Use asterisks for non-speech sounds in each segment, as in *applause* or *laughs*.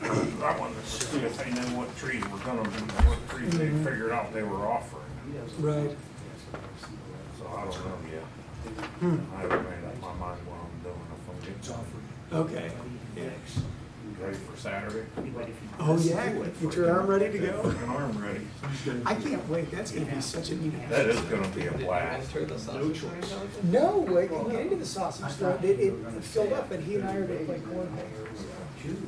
Hmm, see if they knew what trees were gonna be, what trees they Mhm. figured out they were offering. Right. So I don't Oh, know yet. Hmm. I haven't made up my mind what I'm doing if I'm getting something Okay. Yeah. ready for Saturday. Oh, yeah, get your arm ready to go. An arm ready. *laughs* I can't wait, that's gonna be such a neat. That is gonna be a blast. No, I can get into the sausage store, it, it it filled up, and he and I are gonna play cornhole.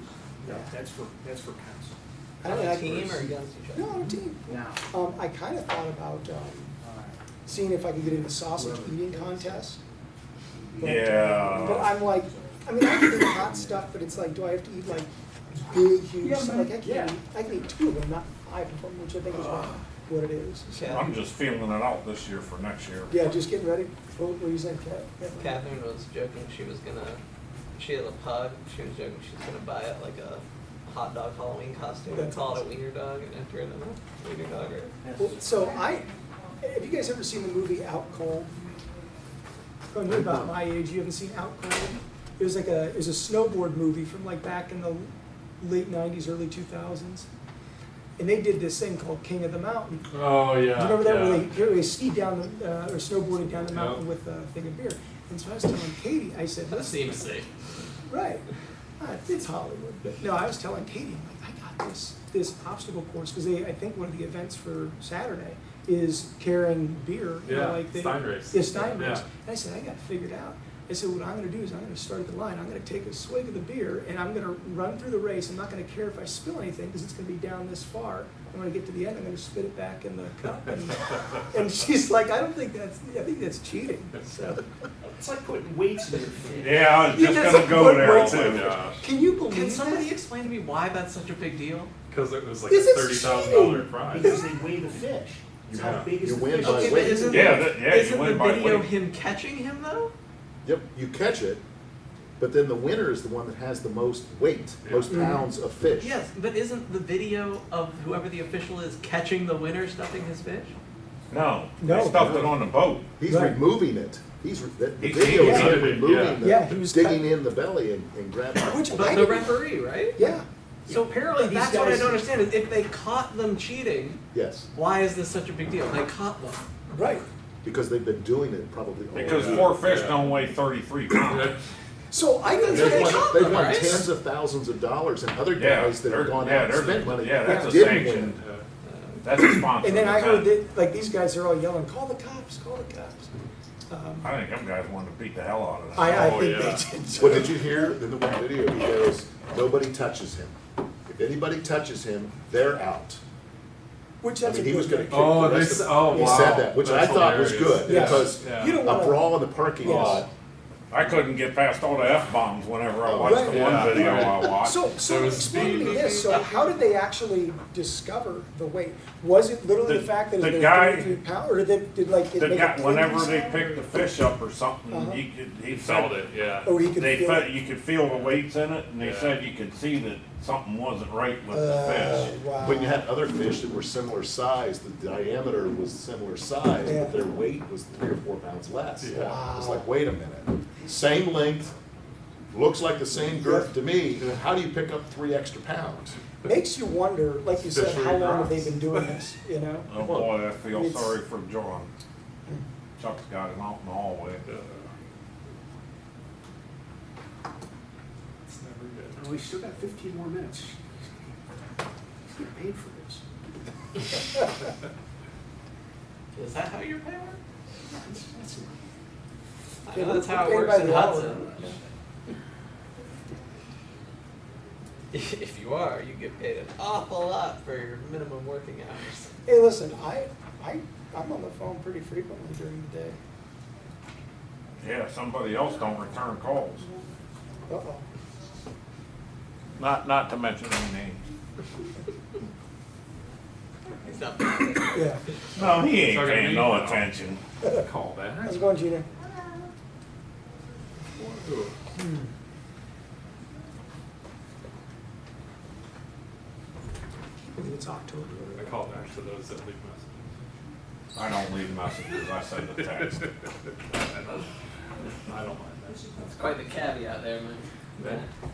No, that's for, that's for council. I don't know, I- team or against each other? No, on a team. Now. Um, I kinda thought about, um, seeing if I could get into sausage eating contest. but- Yeah. But I'm like, I mean, I can eat hot stuff, but it's like, do I have to eat like big, huge, Yeah, stuff? man, like, I yeah. can't eat, I can eat two of them, not five of them, which I think is what what it is. I'm Catherine- just feeling it out this year for next year. Yeah, just getting ready, what were you saying, Kat? Yeah. Catherine was joking she was gonna, she had a pug, she was joking she's gonna buy it like a hot dog Halloween costume and That's call it a wiener dog and enter it in a wiener dog or. Well, So I, have you guys ever seen the movie Out Cold? Oh, you're about my age, you haven't seen Out Cold? It was like a, it was a snowboard movie from like back in the late nineties, early two thousands. And they did this thing called King of the Mountain. Oh yeah. Do you remember that yeah. where they, where they ski down, the, uh, or snowboarded down the Yeah. mountain with a thing of beer? And so I was telling Katie, I said, That listen, seems safe. Right. Uh, It's Hollywood. But no, I was telling Katie, I'm like, I got this, this obstacle course, because they, I think one of the events for Saturday is carrying beer. you know, Yeah, like they- Stein race. Yeah, Stein race. Yeah. And I said, I got it figured out. I said, what I'm gonna do is I'm gonna start at the line, I'm gonna take a swig of the beer, and I'm gonna run through the race. I'm not gonna care if I spill anything, because it's gonna be down this far. And when I get to the end, I'm gonna spit it back in the cup. *laughs* And- And she's like, I don't think that's, I think that's cheating, *laughs* so. It's like putting weights in your feet. Yeah, I was Yeah, just that's gonna a go good there way. Oh my too. gosh. Can you believe that? Can somebody explain to me why that's such a big deal? Because it was like This a is thirty thousand dollar cheating. prize. Because they weigh the fish. It's how Yeah. big is You the win fish. by Okay, but weight. isn't Uh, Yeah, the- that- yeah, you isn't win the by video weight. him catching him though? Yep, you catch it, but then the winner is the one that has the most weight, Yeah. most Mhm. Mm-hmm. pounds of fish. Yes, but isn't the video of whoever the official is catching the winner stuffing his fish? No, No. they stuffed it on the boat. He's Right. removing it. He's, re- that- the He's video is eating him it, yeah. removing Yeah, the, he was digging cut- in the belly and, and grabbing it. Which I But the didn't- referee, right? Yeah, So apparently These that's what I guys- don't understand is if they caught them cheating, Yes, why is this such a big deal? They caught them. right. because they've been doing it probably all Because around. four fish don't weigh thirty-three pounds. So I can That's what They've they won, caught they've them, won right? tens of thousands of dollars and other Yeah, guys that they're- have gone yeah, out and they're- spent money. yeah, that's a didn't win. sanction. Uh, Yeah. That's a sponsor. And then I heard event. that, like, these guys are all yelling, call the cops, call the cops. Um, I think them guys wanted to beat the hell out of that. I, I Oh, think yeah. they did. too. Well, did you hear in the one video, he goes, nobody touches him. If anybody touches him, they're out. Which I that's a mean, he was gonna good kick thing. the Oh, they rest s- of oh, He said wow. that, which I That's thought was hilarious. good, Yeah. because Yeah. You a don't wanna- brawl in the parking Yes. lot, I couldn't get past all the F-bombs whenever I watched the Right. one Yeah. video I watched. So, so There was explain to me speed. this, so how did they actually discover the weight? Was it literally the The- fact that it the was guy- thirty-three pound, or did, did like? it The make a guy, clicking whenever they sound? picked the fish up or something, Uh-huh. he could, he He felt said, it. Yeah. Oh, he could they feel felt, it? you could feel the weights in it, and they Yeah. said you could see that something wasn't right with Uh, the fish. wow. when you had other fish that were similar size, the diameter was similar size, Yeah. but their weight was three or four pounds less. Yeah. Wow. It's like, wait a minute, same length, looks like the same girth to me, how do you pick up three extra pounds? Makes you wonder, like you said, Fishery how long have they grounds. been doing this, you know? Oh boy, I feel It's- sorry for John. Chuck's got him out in the hallway. Yeah. It's never good. And we still got fifteen more minutes. He's getting paid for this. Is that how you're paid? I That's- that's it. Yeah, know that's we're how it paid works by in the hour. Hudson. *laughs* If you are, you get paid an awful lot for your minimum working hours. Hey, listen, I, I, I'm on the phone pretty frequently during the day. Yeah, somebody else don't return calls. Uh-oh. Not, not to mention any names. He's not paying. Yeah. No, he ain't It's not gonna paying be no now. attention. Call back. How's it going, Gina? Whoa. Maybe It's October. I call back to those that leave messages. I don't leave messages, I send a text. I don't mind that. It's quite the caveat there, man. Yeah.